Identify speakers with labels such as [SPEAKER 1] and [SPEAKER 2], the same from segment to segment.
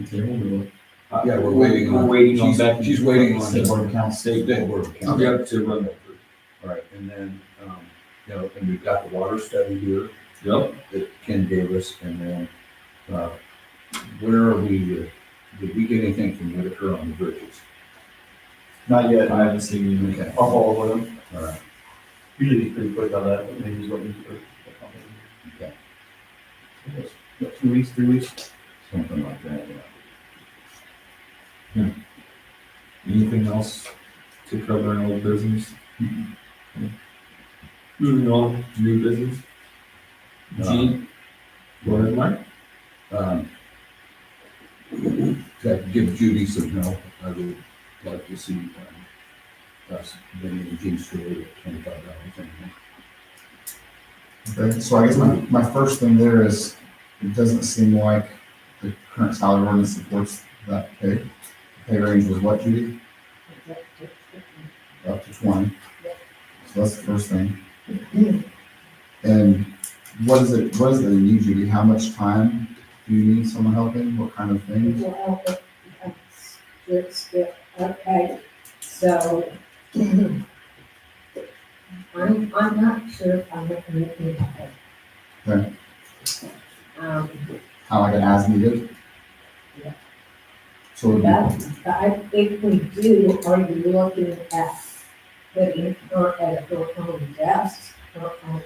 [SPEAKER 1] Uh,
[SPEAKER 2] Yeah, we're waiting on-
[SPEAKER 1] We're waiting on
[SPEAKER 2] she's-
[SPEAKER 1] Becky.
[SPEAKER 2] she's waiting on-
[SPEAKER 1] State Board of Accounts, State
[SPEAKER 2] State
[SPEAKER 1] Board.
[SPEAKER 2] Board of Accounts.
[SPEAKER 1] Yep, to run that through.
[SPEAKER 2] Right, and then, um, you know, and we've got the water study here
[SPEAKER 1] Yep,
[SPEAKER 2] that Ken gave us, and then, uh, where are we, uh, did we get anything from Whitaker on the bridges?
[SPEAKER 3] Not yet, I haven't seen you.
[SPEAKER 2] Okay.
[SPEAKER 3] I'll follow with him.
[SPEAKER 2] All right,
[SPEAKER 3] Usually he's pretty quick on that, but maybe he's looking for.
[SPEAKER 2] Okay.
[SPEAKER 3] About Two weeks, three weeks?
[SPEAKER 2] something like that, yeah.
[SPEAKER 1] anything else to cover in old business? Moving on, to Mm-hmm. new business. Gene, go ahead, Mike.
[SPEAKER 2] Um, That give Judy some help, I would like to see, um, us, bringing the Jean Stewart at twenty-five dollars an hour.
[SPEAKER 4] Okay, so I guess my, my first thing there is, it doesn't seem like the current salary ordinance supports that pay. Pay range was what, Judy? Up to twenty. So that's the first thing. And what is it, what is it in you, Judy? How much time do you need someone helping? What kind of things?
[SPEAKER 5] Well, it's- it's- yeah, Okay, so. I'm, I'm not sure if I'm recommending that.
[SPEAKER 4] Okay.
[SPEAKER 5] Um,
[SPEAKER 4] Kind of like an as needed?
[SPEAKER 5] Yeah.
[SPEAKER 4] So it would be-
[SPEAKER 5] but I think we do, are you looking at putting her at her own desk, her own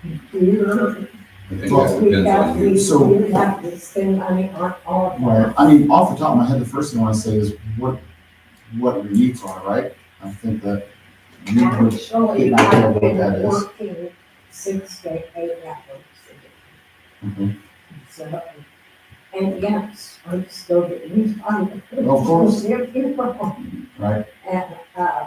[SPEAKER 5] computer?
[SPEAKER 2] I think that depends on you.
[SPEAKER 5] We have,
[SPEAKER 4] So-
[SPEAKER 5] we do have to spend money on all of that.
[SPEAKER 4] Right. I mean, off the top of my head, the first thing I want to say is what, what your needs are, right? I think that you would,
[SPEAKER 5] Actually,
[SPEAKER 4] Yeah, I don't know
[SPEAKER 5] I've
[SPEAKER 4] what
[SPEAKER 5] been
[SPEAKER 4] that is.
[SPEAKER 5] working six to eight hours a day.
[SPEAKER 4] Mhm.
[SPEAKER 5] So, and yes, I'm still getting tired.
[SPEAKER 4] Of course. right?
[SPEAKER 5] And, uh,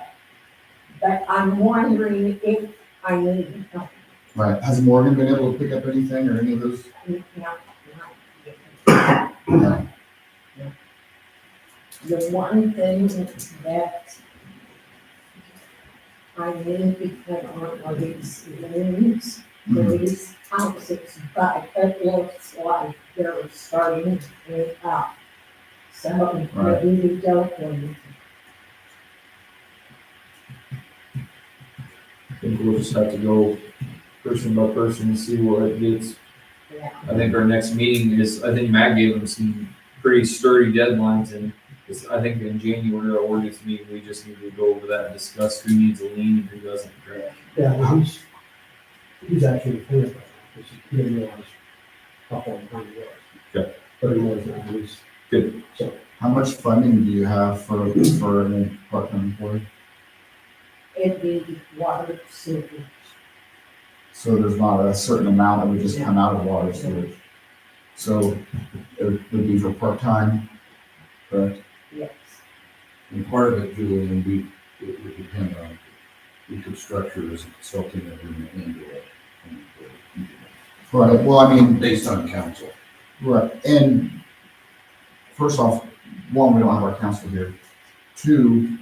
[SPEAKER 5] but I'm wondering if I need help.
[SPEAKER 4] Right. Has Morgan been able to pick up anything or any of those?
[SPEAKER 5] Not- not-
[SPEAKER 4] Right.
[SPEAKER 5] The one thing that I need to put on are these limbs,
[SPEAKER 4] Mhm.
[SPEAKER 5] these houses, but it looks like they're starting to clean up. So
[SPEAKER 4] Right.
[SPEAKER 5] maybe we don't need
[SPEAKER 1] I think we'll just have to go person by person and see what it gets.
[SPEAKER 5] that.
[SPEAKER 1] I think our next meeting is, I think Matt gave them some pretty sturdy deadlines and it's, I think in January, our ordinance meeting, we just need to go over that and discuss who needs a lien and who doesn't, correct?
[SPEAKER 6] Yeah, well, he's, he's actually clear, which he didn't realize how far behind he was.
[SPEAKER 1] Okay.
[SPEAKER 6] Thirty more than I was.
[SPEAKER 4] How much funding do you have for, for a part-time employee?
[SPEAKER 5] It'd be water sewage.
[SPEAKER 4] So there's not a certain amount that would just come out of water storage. So it would be for part-time, correct?
[SPEAKER 5] yes.
[SPEAKER 2] And part of it, Julian, we, it would depend on, we could structure as a consulting agreement into it.
[SPEAKER 4] Right. Well, I mean,
[SPEAKER 2] uh, Based on council.
[SPEAKER 4] Right, and first off, one, we don't have our council here. Two,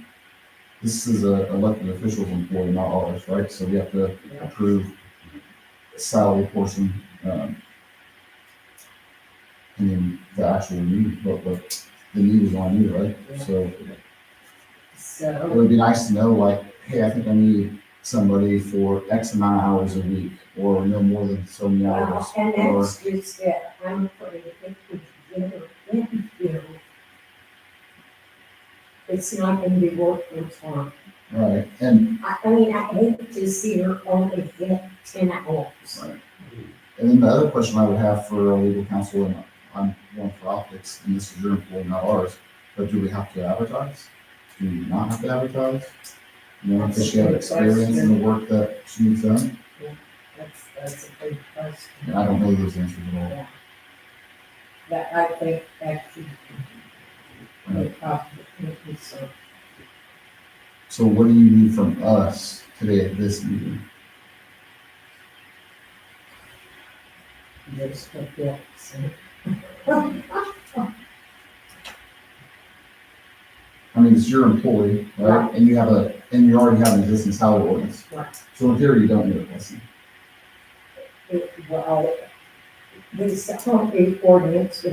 [SPEAKER 4] this is a elected officials employee, not ours, right? So we have to approve salary portion, um, and then the actual need, but, but the need is on you, right? So it
[SPEAKER 5] So,
[SPEAKER 4] would be nice to know, like, hey, I think I need somebody for X amount of hours a week, or no more than so many hours.
[SPEAKER 5] well, and
[SPEAKER 4] or-
[SPEAKER 5] that's just it, I'm putting it together with you. It's not gonna be working for her.
[SPEAKER 4] Right, and
[SPEAKER 5] I, I mean, I hate to see her only get ten hours.
[SPEAKER 4] And then the other question I would have for our legal counsel, and I'm one for optics, and this is your employee, not ours, but do we have to advertise? Do we not have to advertise? You know, does she have experience in the work that she's done?
[SPEAKER 5] That's, that's a big question,
[SPEAKER 4] And I don't know those answers at all.
[SPEAKER 5] that I think that you.
[SPEAKER 4] Right.
[SPEAKER 5] so.
[SPEAKER 4] So what do you need from us today at this meeting?
[SPEAKER 5] There's the books and-
[SPEAKER 4] I mean, it's your employee, right? And you have a, and you already have an existing salary ordinance.
[SPEAKER 5] Right.
[SPEAKER 4] So in theory, you don't need a lesson.
[SPEAKER 5] it- well, this whole um, ordinance